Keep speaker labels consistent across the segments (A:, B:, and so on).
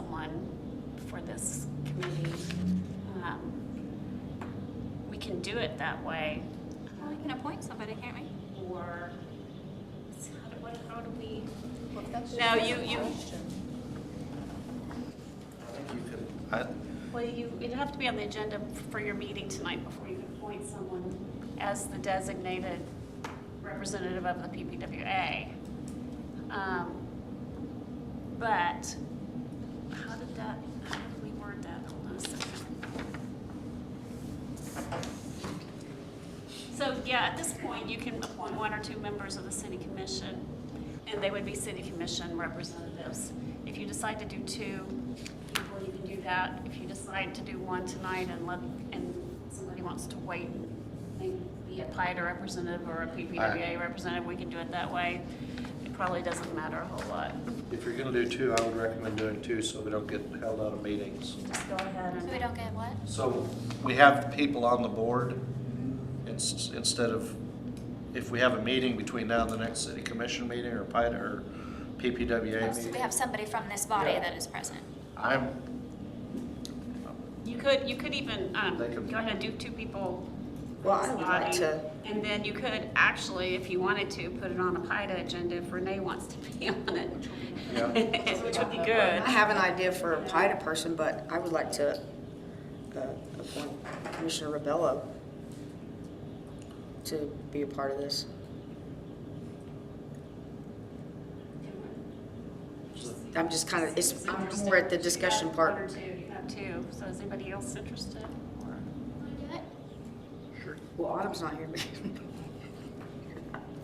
A: someone for this committee. Um, We can do it that way,
B: Well, we can appoint somebody, can't we?
A: or, how do, what, how do we?
B: No, you, you.
C: I think you could, I,
A: Well, you, it'd have to be on the agenda for your meeting tonight before you appoint someone as the designated representative of the PPWA. Um, But, how did that, how did we word that? Hold on a second. So, yeah, at this point, you can appoint one or two members of the city commission, and they would be city commission representatives. If you decide to do two, you will even do that. If you decide to do one tonight and let, and somebody wants to wait, maybe be a PIDA representative or a PPWA representative, we can do it that way. It probably doesn't matter a whole lot.
C: if you're gonna do two, I would recommend doing two so we don't get held out of meetings.
A: Just go ahead
B: So
A: and,
B: we don't get what?
C: So we have people on the board, it's, instead of, if we have a meeting between now and the next city commission meeting or PIDA E or PPWA
B: So we
C: meeting,
B: have somebody from this body
C: Yeah.
B: that is present.
C: I'm,
A: you could, you could even, um,
C: They could-
A: go ahead and do two people
D: Well, I would like
A: body.
D: to,
A: And then you could actually, if you wanted to, put it on a PIDA agenda if Renee wants to be on it.
C: Yeah.
A: Which would be good.
D: I have an idea for a PIDA person, but I would like to uh, appoint Commissioner Rebello to be a part of this. I'm just kind of, Uh, it's I'm more at the discussion
A: One or
D: part.
A: two, you have two. So is anybody else interested? Or-
D: Well, Autumn's not here.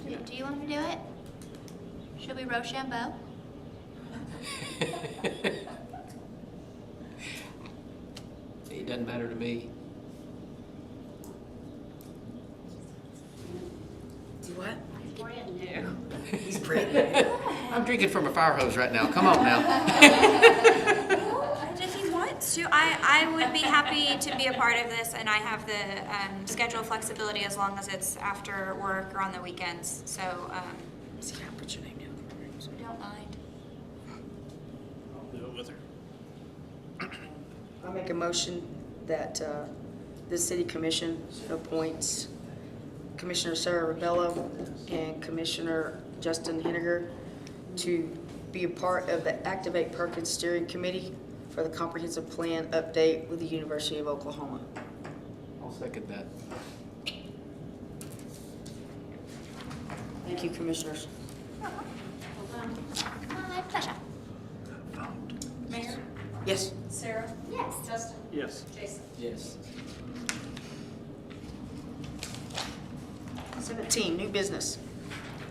B: Do do you want me to do it? Should we Rochambeau?
E: It doesn't matter to me.
D: Do what?
A: Brand new.
D: He's pregnant.
E: I'm drinking from a fire hose right now. Come on now.
B: If he wants to, I, I would be happy to be a part of this, and I have the um, schedule flexibility as long as it's after work or on the weekends, so um,
D: See, I put your name down.
B: don't mind.
D: I make a motion that uh, the city commission appoints Commissioner Sarah Rebello and Commissioner Justin Henninger to be a part of the Activate Perkins Steering Committee for the Comprehensive Plan Update with the University of Oklahoma.
E: I'll second that.
D: Thank you, commissioners.
B: Uh-huh. My pleasure.
A: Mayor?
D: Yes,
A: Sarah? Yes. Justin?
C: Yes.
A: Jason?
E: Yes.
D: 17, new business.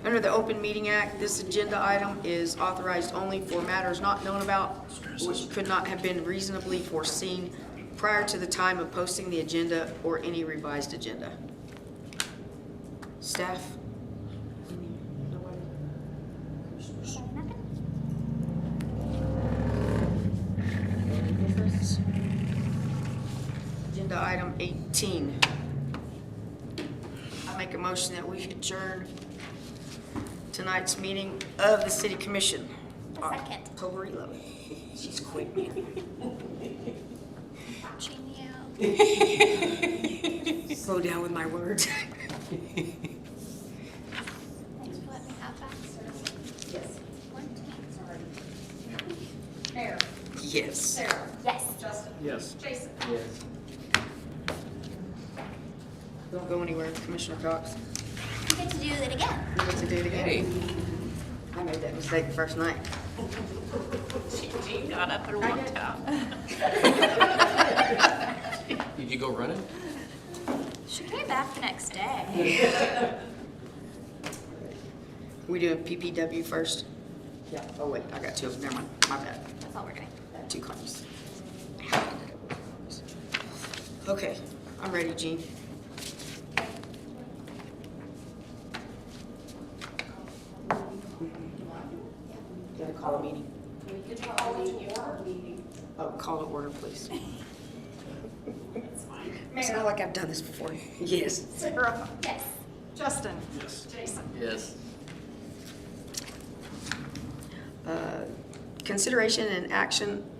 D: Under the Open Meeting Act, this agenda item is authorized only for matters not known about, which could not have been reasonably foreseen prior to the time of posting the agenda or any revised agenda. Staff? Agenda item 18. I make a motion that we adjourn tonight's meeting of the city commission.
B: A second.
D: October 11th. She's quick, man.
B: Watching you.
D: Slow down with my words.
B: Thanks for letting me have that service.
A: Yes.
B: One team.
A: Mayor?
D: Yes.
A: Sarah?
B: Yes.
A: Justin?
C: Yes.
A: Jason?
E: Yes.
D: Don't go anywhere, Commissioner Cox.
B: You get to do it again.
D: You get to do it
E: Hey.
D: again. I made that mistake the first night.
A: She, she got up and walked out.
E: Did you go running?
B: She came back the next day.
D: We doing PPW first? Yeah. Oh, wait, I got two of them, never mind, my bad.
B: That's all we're doing.
D: I got Two copies. Okay, I'm ready, Gene. Gotta call a meeting. Oh, call to order, please. It's not like I've done this before. Yes.
A: Sarah?
B: Yes.
A: Justin? Yes. Jason?
E: Yes.
D: Uh, Consideration and action